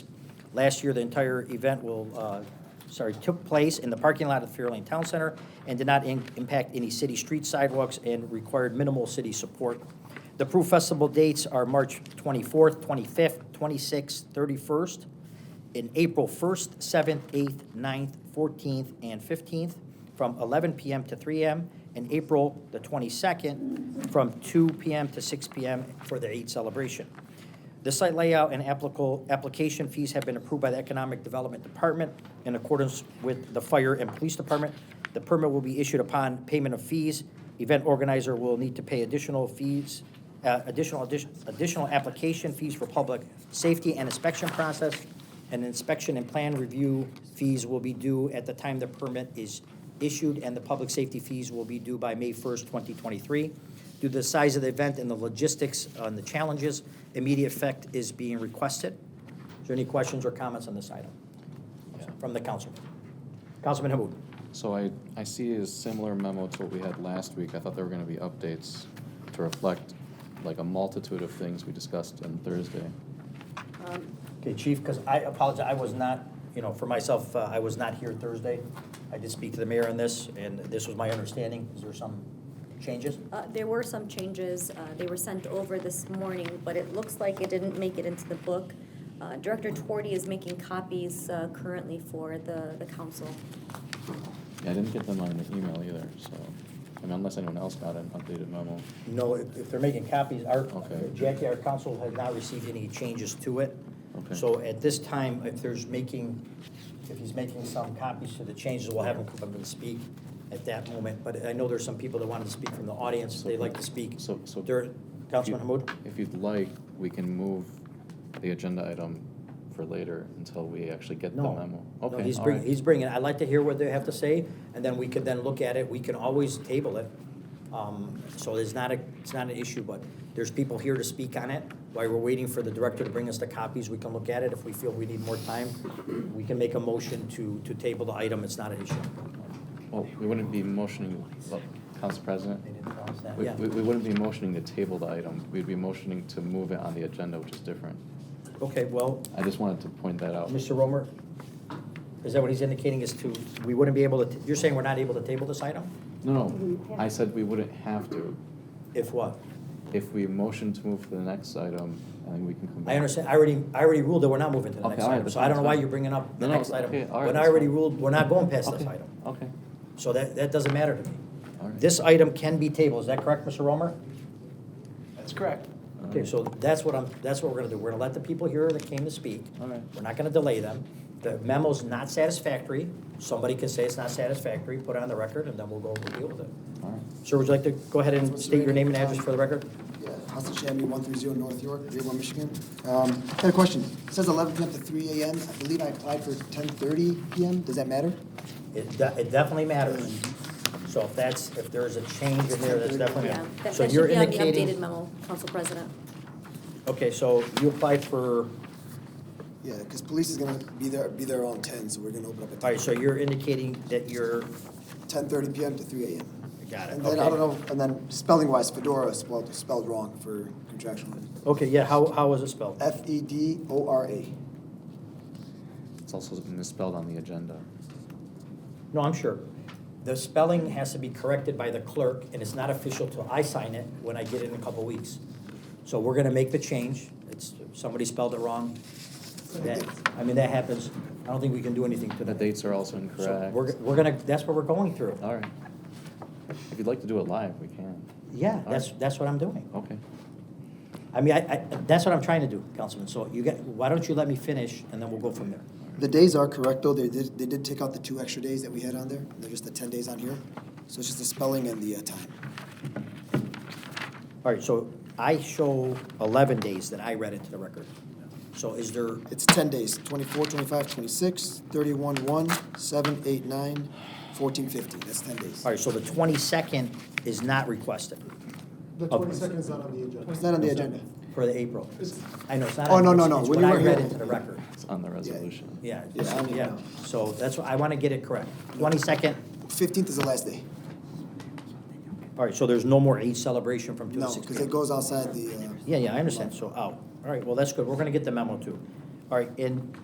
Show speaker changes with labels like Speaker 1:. Speaker 1: Last year, the entire event will, uh, sorry, took place in the parking lot of Fairlane Town Center and did not in- impact any city street sidewalks and required minimal city support. The Proof Festival dates are March 24th, 25th, 26th, 31st, in April 1st, 7th, 8th, 9th, 14th, and 15th, from 11 PM to 3 AM, and April the 22nd, from 2 PM to 6 PM for the Eid celebration. The site layout and applicable, application fees have been approved by the Economic Development Department in accordance with the Fire and Police Department. The permit will be issued upon payment of fees. Event organizer will need to pay additional fees, uh, additional, addition- additional application fees for public safety and inspection process. And inspection and plan review fees will be due at the time the permit is issued, and the public safety fees will be due by May 1st, 2023. Due to the size of the event and the logistics and the challenges, immediate effect is being requested. Is there any questions or comments on this item from the council? Councilman Hamud?
Speaker 2: So I, I see a similar memo to what we had last week. I thought there were gonna be updates to reflect like a multitude of things we discussed on Thursday.
Speaker 1: Okay, Chief, because I apologize, I was not, you know, for myself, uh, I was not here Thursday. I did speak to the mayor on this, and this was my understanding. Is there some changes?
Speaker 3: Uh, There were some changes. Uh, They were sent over this morning, but it looks like it didn't make it into the book. Uh, Director Twardy is making copies uh, currently for the, the council.
Speaker 2: Yeah, I didn't get them on an email either, so, I mean, unless anyone else got an updated memo.
Speaker 1: No, if if they're making copies, our,
Speaker 2: Okay.
Speaker 1: Jackie, our council has not received any changes to it.
Speaker 2: Okay.
Speaker 1: So at this time, if there's making, if he's making some copies to the changes, we'll have him come up and speak at that moment. But I know there's some people that wanted to speak from the audience, they like to speak.
Speaker 2: So- so-
Speaker 1: During- Councilman Hamud?
Speaker 2: If you'd like, we can move the agenda item for later until we actually get the
Speaker 1: No.
Speaker 2: memo.
Speaker 1: No,
Speaker 2: Okay,
Speaker 1: he's
Speaker 2: all
Speaker 1: bringing,
Speaker 2: right.
Speaker 1: he's bringing, I'd like to hear what they have to say, and then we could then look at it, we can always table it. Um, So it's not a, it's not an issue, but there's people here to speak on it. While we're waiting for the director to bring us the copies, we can look at it. If we feel we need more time, we can make a motion to, to table the item, it's not an issue.
Speaker 2: Well, we wouldn't be motioning, well, Council President? We,
Speaker 1: Yeah,
Speaker 2: we we wouldn't be motioning to table the item, we'd be motioning to move it on the agenda, which is different.
Speaker 1: okay, well,
Speaker 2: I just wanted to point that out.
Speaker 1: Mr. Romer, is that what he's indicating is to, we wouldn't be able to, you're saying we're not able to table this item?
Speaker 2: No, no, I said we wouldn't have to.
Speaker 1: If what?
Speaker 2: If we motion to move to the next item, I think we can come back.
Speaker 1: I understand, I already, I already ruled that we're not moving to the
Speaker 2: Okay,
Speaker 1: next
Speaker 2: all right,
Speaker 1: item,
Speaker 2: that's
Speaker 1: so I don't know
Speaker 2: fine.
Speaker 1: why you're bringing up the
Speaker 2: No, no,
Speaker 1: next item.
Speaker 2: okay, all right,
Speaker 1: When I
Speaker 2: that's
Speaker 1: already
Speaker 2: fine.
Speaker 1: ruled, we're not going past this
Speaker 2: Okay,
Speaker 1: item,
Speaker 2: Okay,
Speaker 1: so that, that doesn't matter to me.
Speaker 2: all right.
Speaker 1: This item can be tabled, is that correct, Mr. Romer?
Speaker 4: That's correct.
Speaker 2: All
Speaker 1: Okay,
Speaker 2: right.
Speaker 1: so that's what I'm, that's what we're gonna do, we're gonna let the people here that came to speak.
Speaker 2: All right.
Speaker 1: We're not gonna delay them, the memo's not satisfactory, somebody can say it's not satisfactory, put it on the record, and then we'll go, we'll deal with it.
Speaker 2: All right.
Speaker 1: Sir, would you like to go ahead and
Speaker 5: Mr.
Speaker 1: state your
Speaker 5: Reagan,
Speaker 1: name and
Speaker 5: um,
Speaker 1: address for the record?
Speaker 5: Yeah, Hudson Avenue, one three zero North York, Dearborn, Michigan. Um, I had a question. It says eleven PM to three AM. I believe I applied for ten thirty PM. Does that matter?
Speaker 1: It, de- it definitely matters, so if that's, if there's a change in there, that's definitely.
Speaker 3: Yeah, that
Speaker 1: So
Speaker 3: that
Speaker 1: you're
Speaker 3: should be on the
Speaker 1: indicating-
Speaker 3: updated memo, Council President.
Speaker 1: Okay, so you applied for, all
Speaker 5: Yeah, because police is gonna be there, be there around ten, so we're gonna open up
Speaker 1: right,
Speaker 5: at
Speaker 1: so you're indicating that you're,
Speaker 5: ten thirty PM to three AM.
Speaker 1: got it,
Speaker 5: And then, I don't
Speaker 1: okay.
Speaker 5: know, and then spelling wise, Fedora is spelled, spelled wrong for contractual.
Speaker 1: Okay, yeah, how, how was it spelled?
Speaker 5: F E D O R A.
Speaker 2: It's also misspelled on the agenda.
Speaker 1: No, I'm sure. The spelling has to be corrected by the clerk, and it's not official till I sign it when I get it in a couple weeks. So we're gonna make the change, it's, somebody spelled it wrong. That, I mean, that happens, I don't think we can do anything to
Speaker 2: The
Speaker 1: that.
Speaker 2: dates are
Speaker 1: So
Speaker 2: also incorrect.
Speaker 1: we're, we're gonna, that's what we're going through.
Speaker 2: All right. If you'd like to do it live, we can.
Speaker 1: Yeah, that's, that's what I'm doing.
Speaker 2: Okay.
Speaker 1: I mean, I, I, that's what I'm trying to do, Councilman, so you get, why don't you let me finish, and then we'll go from there.
Speaker 5: The days are correct, though. They did, they did take out the two extra days that we had on there. They're just the ten days on here. So it's just the spelling and the uh, time.
Speaker 1: All right, so I show eleven days that I read it to the record. So is there,
Speaker 5: It's 10 days, 24, 25, 26, 31, 1, 7, 8, 9, 14, 15. That's 10 days.
Speaker 1: all right, so the twenty-second is not requested
Speaker 6: The
Speaker 1: Okay.
Speaker 6: twenty-second is not on the agenda.
Speaker 5: It's not on the agenda.
Speaker 1: for the April. I know, it's not.
Speaker 5: Oh,
Speaker 1: on-
Speaker 5: no, no,
Speaker 1: it's-
Speaker 5: no,
Speaker 1: It's
Speaker 5: when
Speaker 1: what
Speaker 5: you
Speaker 1: I
Speaker 5: were
Speaker 1: read
Speaker 5: here.
Speaker 1: into the record,
Speaker 2: It's on the resolution.
Speaker 1: yeah,
Speaker 5: Yeah, I don't
Speaker 1: yeah,
Speaker 5: know.
Speaker 1: so that's, what I wanna get it correct. Twenty-second,
Speaker 5: 15th is the last day.
Speaker 1: all right, so there's no more Eid celebration from two to
Speaker 5: No,
Speaker 1: six.
Speaker 5: because it goes outside the. uh,
Speaker 1: oh, Yeah, yeah, I understand, so out, all right, well, that's good, we're gonna get the memo too. All right, and